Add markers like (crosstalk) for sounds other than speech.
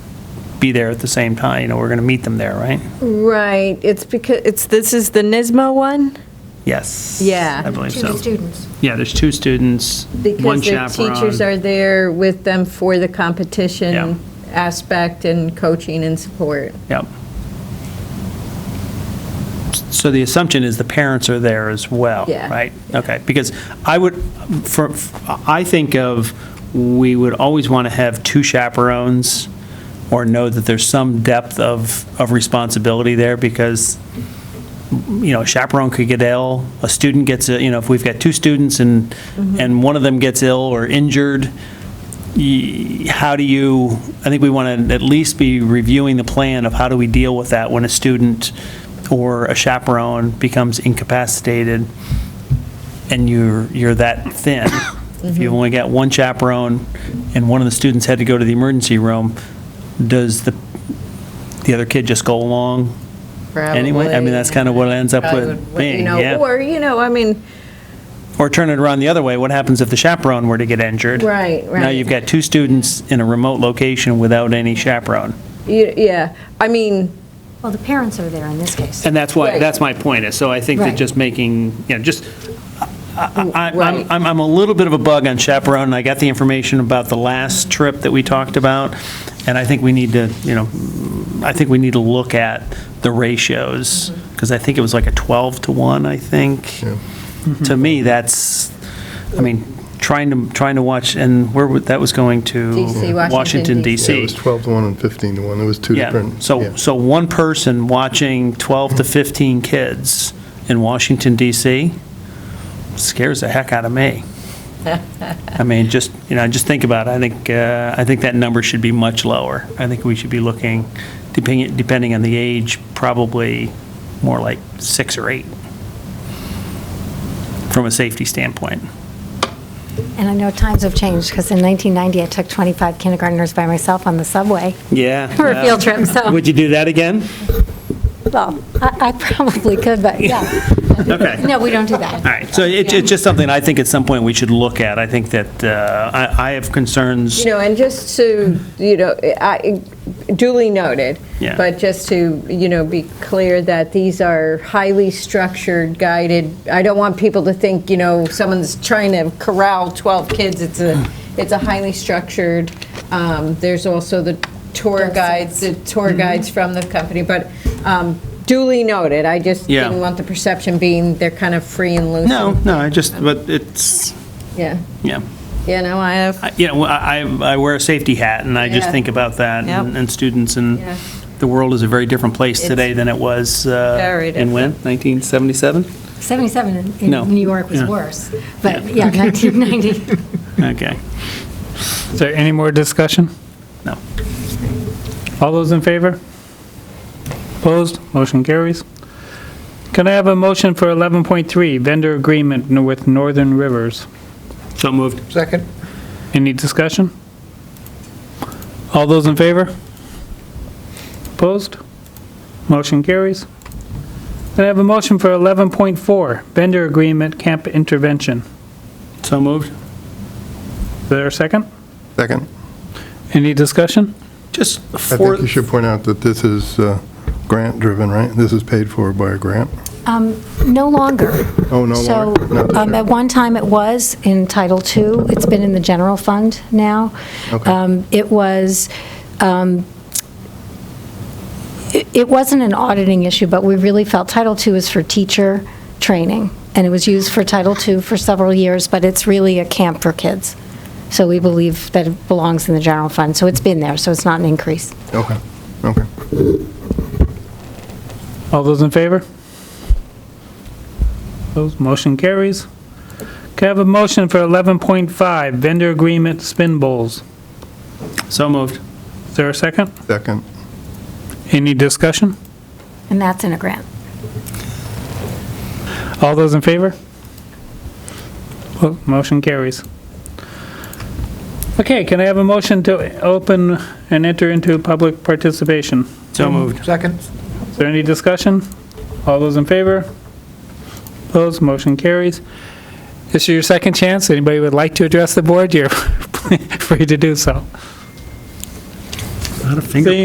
be there at the same time, you know, we're going to meet them there, right? Right, it's because, it's, this is the NISMO one? Yes. Yeah. I believe Two so. students. Yeah, there's two students, one Because their chaperone. teachers are there with them for the Yeah. competition aspect and coaching and support. Yep. So the assumption is the parents are there as well, Yeah. right? Okay, because I would, for, I think of, we would always want to have two chaperones or know that there's some depth of, of responsibility there because, you know, a chaperone could get ill, a student gets, a- you know, if we've got two students and, Mm-hmm. and one of them gets ill or injured, y- how do you, I think we want to at least be reviewing the plan of how do we deal with that when a student or a chaperone becomes incapacitated and you're, you're that thin. If Mm-hmm. you've only got one chaperone and one of the students had to go to the emergency room, does the, the other kid just go along? Anyway, I mean, that's kind of what it ends up Probably with would- being, you know, yeah. Or, you know, I mean, Or turn it around the other way, what happens if the chaperone were to get injured? Right, Now right. you've got two students in a remote location without any chaperone. y- yeah, I mean, Well, the parents are there in this case. And that's why, Right. that's my point, is, so I think that Right. just making, you know, just, I- I- Right. I'm, I'm I'm a little bit of a bug on chaperone, and I got the information about the last trip that we talked about, and I think we need to, you know, I think we need to look at the ratios, because I think it was like a 12 to 1, I think. To Mm-hmm. me, that's, I mean, trying to, trying to watch, and where, would- that was going to? DC, Washington, Washington, DC. DC. Yeah, it was 12 to 1 and 15 to 1. There was two Yeah, different. so, yeah. so one person watching 12 to 15 kids in Washington DC scares the heck out of (laughs) me. I mean, just, you know, just think about it, I think, uh, I think that number should be much lower. I think we should be looking, depending, depending on the age, probably more like six or eight, from a safety standpoint. And I know times have changed, because in 1990, I took 25 kindergartners by myself on the subway Yeah. for a field trip, so, Would you do that (laughs) again? well, I I probably could, but yeah. Okay. No, we don't do that. All right, so it- it's just something I think at some point we should look at. I think that uh, I I have concerns, you know, and just to, you know, I- duly noted, Yeah. but just to, you know, be clear that these are highly structured, guided, I don't want people to think, you know, someone's trying to corral 12 kids, it's a, it's a highly structured, um, there's also the tour guides, the tour guides from the company, but um, duly noted, I just Yeah. didn't want the perception being they're kind of free and loose. no, no, I just, but it's, Yeah, yeah. you know, I have, I- You know, I I I wear a safety hat, and I just Yeah. think about that, and Yep. and students, and Yeah. the world is a very different place It's today than it was uh, very in when, 1977? 77 in- No. in New York was Yeah. worse, but yeah, (laughs) 1990. Okay, Is there any more discussion? no. All those in favor? Opposed? Motion carries. Can I have a motion for 11.3, vendor agreement with Northern Rivers? So moved. Second. Any discussion? All those in favor? Opposed? Motion carries. Can I have a motion for 11.4, vendor agreement camp intervention? So moved. Is there a second? Second. Any discussion? Just I for, think you should point out that this is uh, grant-driven, right? This is paid for by a grant. Um, No longer. Oh, no longer? So, Not this um, year. at one time it was in Title II, it's been in the general fund now. Okay. Um, It was, um, it it wasn't an auditing issue, but we really felt Title II is for teacher training, and it was used for Title II for several years, but it's really a camp for kids. So we believe that it belongs in the general fund, so it's been there, so it's not an increase. Okay, okay. All those in favor? Those motion carries. Can I have a motion for 11.5, vendor agreement spin bowls? so moved. Is there a second? Second. Any discussion? And that's in a grant. All those in favor? Well, Motion carries. Okay, can I have a motion to open and enter into public participation? So moved. Second. Is there any discussion? All those in favor? Opposed, motion carries. This is your second chance. Anybody would like to (laughs) address the board, you're free to do so. Not a finger